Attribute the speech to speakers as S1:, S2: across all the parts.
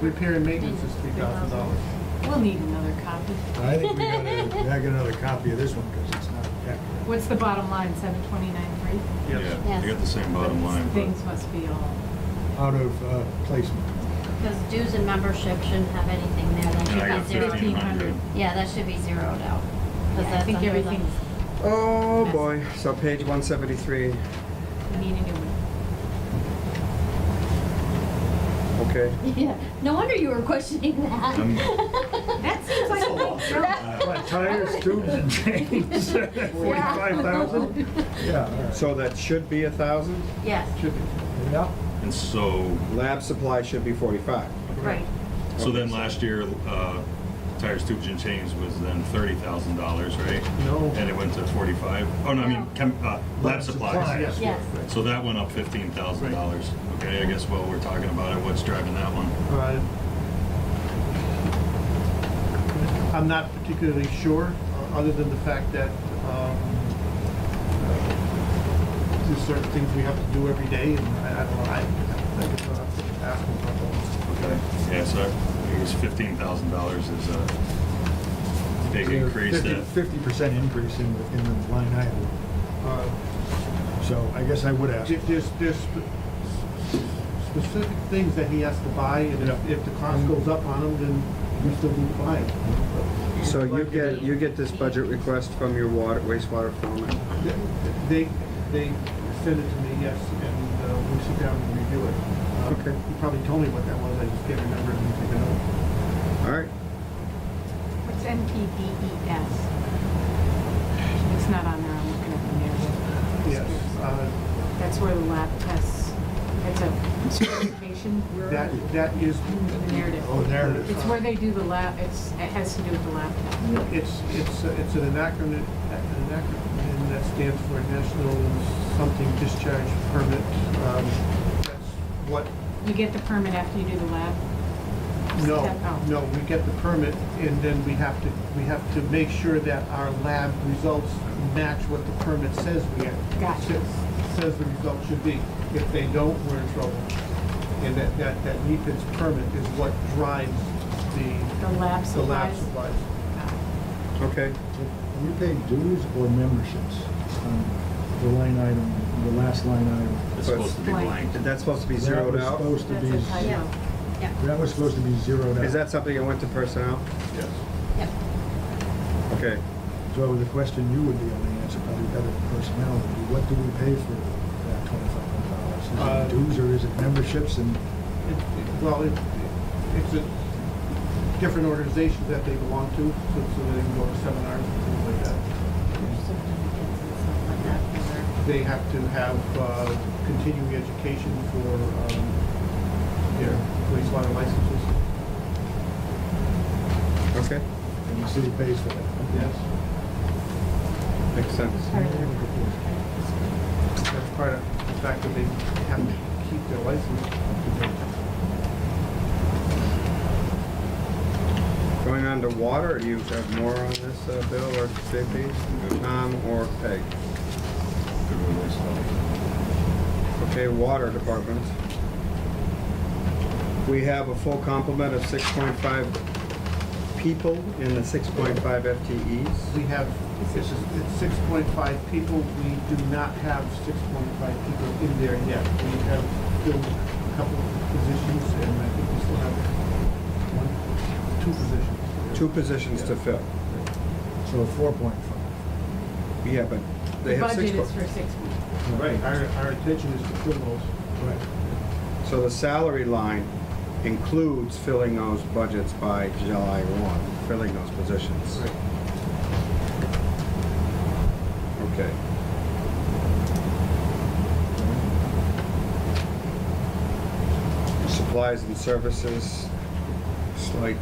S1: Repair and maintenance is three thousand dollars.
S2: We'll need another copy.
S3: I think we gotta, we gotta get another copy of this one, because it's not accurate.
S2: What's the bottom line, seven twenty-nine three?
S1: Yes.
S4: Yeah, you got the same bottom line,
S2: Things must be all,
S3: Out of uh, placement.
S4: because dues and membership shouldn't have anything there, that should
S2: I
S4: be
S2: got
S4: zeroed.
S2: 1500.
S4: Yeah, that should be zeroed out. 'cause
S2: Yeah, I
S4: that's
S2: think
S4: under the-
S2: everything's,
S5: Oh, boy. So page one seventy-three,
S2: we need a new one.
S5: okay.
S4: Yeah, no wonder you were questioning that.
S6: I'm-
S2: That seems like a big jump.
S3: What, Tires, tubes, and chains, forty-five thousand? Yeah, all right.
S5: So that should be a thousand.
S4: Yes,
S1: Should be.
S3: Yeah,
S6: And so,
S5: Lab supply should be forty-five.
S4: right,
S6: so then last year, uh, tires, tubes and chains was then thirty thousand dollars, right?
S1: No.
S6: And it went to forty-five. Oh, no, I mean, chem, uh, lab supplies.
S1: Supplies.
S4: yes.
S6: So that went up fifteen thousand dollars. Okay, I guess while we're talking about it, what's driving that one?
S1: Uh, I'm not particularly sure, uh, other than the fact that um, uh, there's certain things we have to do every day, and I I don't know, I I think it's gonna have to ask them about
S6: Okay. Yeah, so I guess fifteen thousand dollars is a big increase that,
S3: Fifty percent increase in, the- in the line item.
S1: that. Uh,
S3: So I guess I would ask.
S1: There- There's, there's spe- specific things that he has to buy, and if,
S3: Yeah.
S1: if the cost goes up on him, then we still need to buy it.
S5: So you get, you get this budget request from your water, wastewater foreman.
S1: They, they send it to me, yes, and uh, we sit down and review it. Uh,
S5: Okay.
S1: You probably told me what that was, I just can't remember, and take a note.
S5: All right,
S2: What's NPDES? E It's not on there, I'm looking at the narrative.
S1: Yes, uh,
S2: That's where the lab tests, that's a certification.
S1: that, that is,
S2: The narrative.
S3: Oh, there it is.
S2: It's where they do the lab, it's, it has to do with the lab test.
S1: it's, it's, uh, it's an acronym, an acronym that stands for National Something Discharge Permit. Um, That's what
S2: You get the permit after you do the lab?
S1: No,
S2: step? Oh.
S1: no, we get the permit and then we have to, we have to make sure that our lab results match what the permit says we have.
S2: Gotcha.
S1: sa- Says the result should be. If they don't, we're in trouble. And that, that, that NEPA's permit is what drives
S2: The
S1: the,
S2: lab
S1: the lab
S2: supplies?
S1: supplies.
S5: okay.
S3: We pay dues or memberships on the line item, the last line item.
S6: it's supposed to be
S2: Blank.
S6: blank.
S5: And that's supposed to be
S3: That
S5: zeroed
S3: was
S5: out?
S3: supposed to
S2: That's
S3: be-
S2: a typo.
S4: yeah,
S3: That was supposed to be zeroed out.
S5: Is that something that went to personnel?
S6: Yes.
S4: yeah.
S5: Okay,
S3: So the question you would be able to answer, probably better than personnel, would be what do we pay for that twenty-five hundred dollars?
S1: Uh,
S3: Is it dues or is it memberships and,
S1: It- it- Well, it, it's a different organization that they belong to, so so they can go to seminars and things like that.
S4: There's certificates and stuff like that for their-
S1: they have to have uh, continuing education for um, their wastewater licenses.
S5: okay,
S3: and the city pays for that?
S1: Yes,
S5: makes sense.
S4: part of their-
S1: that's part of the fact that they have to keep their license.
S5: Going on to water, do you have more on this, uh, Bill or JP? Tom or Peg? Okay, water department. We have a full complement of 6.5 people in the 6.5 FTEs.
S1: We have, it's six point five people, we do not have six point five people in there yet. We have filled a couple of positions, and I think we still have one, two positions.
S5: Two positions to fill.
S3: So four point five.
S5: Yeah, but
S2: The
S5: they have six.
S2: budget is
S5: po-
S2: for six weeks.
S1: Right, our, our intention is to fill those.
S3: Right.
S5: So the salary line includes filling those budgets by July 1, filling those positions. Okay. Supplies and services, slight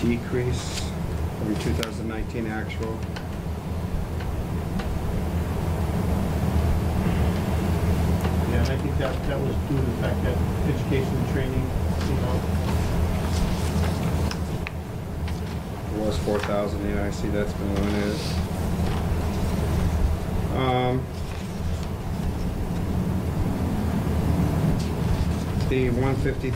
S5: decrease from 2019 actual.
S1: Yeah, and I think that, that was due to the fact that education and training, you know,
S5: It was 4,000, yeah, I see that's been eliminated. Um, The 150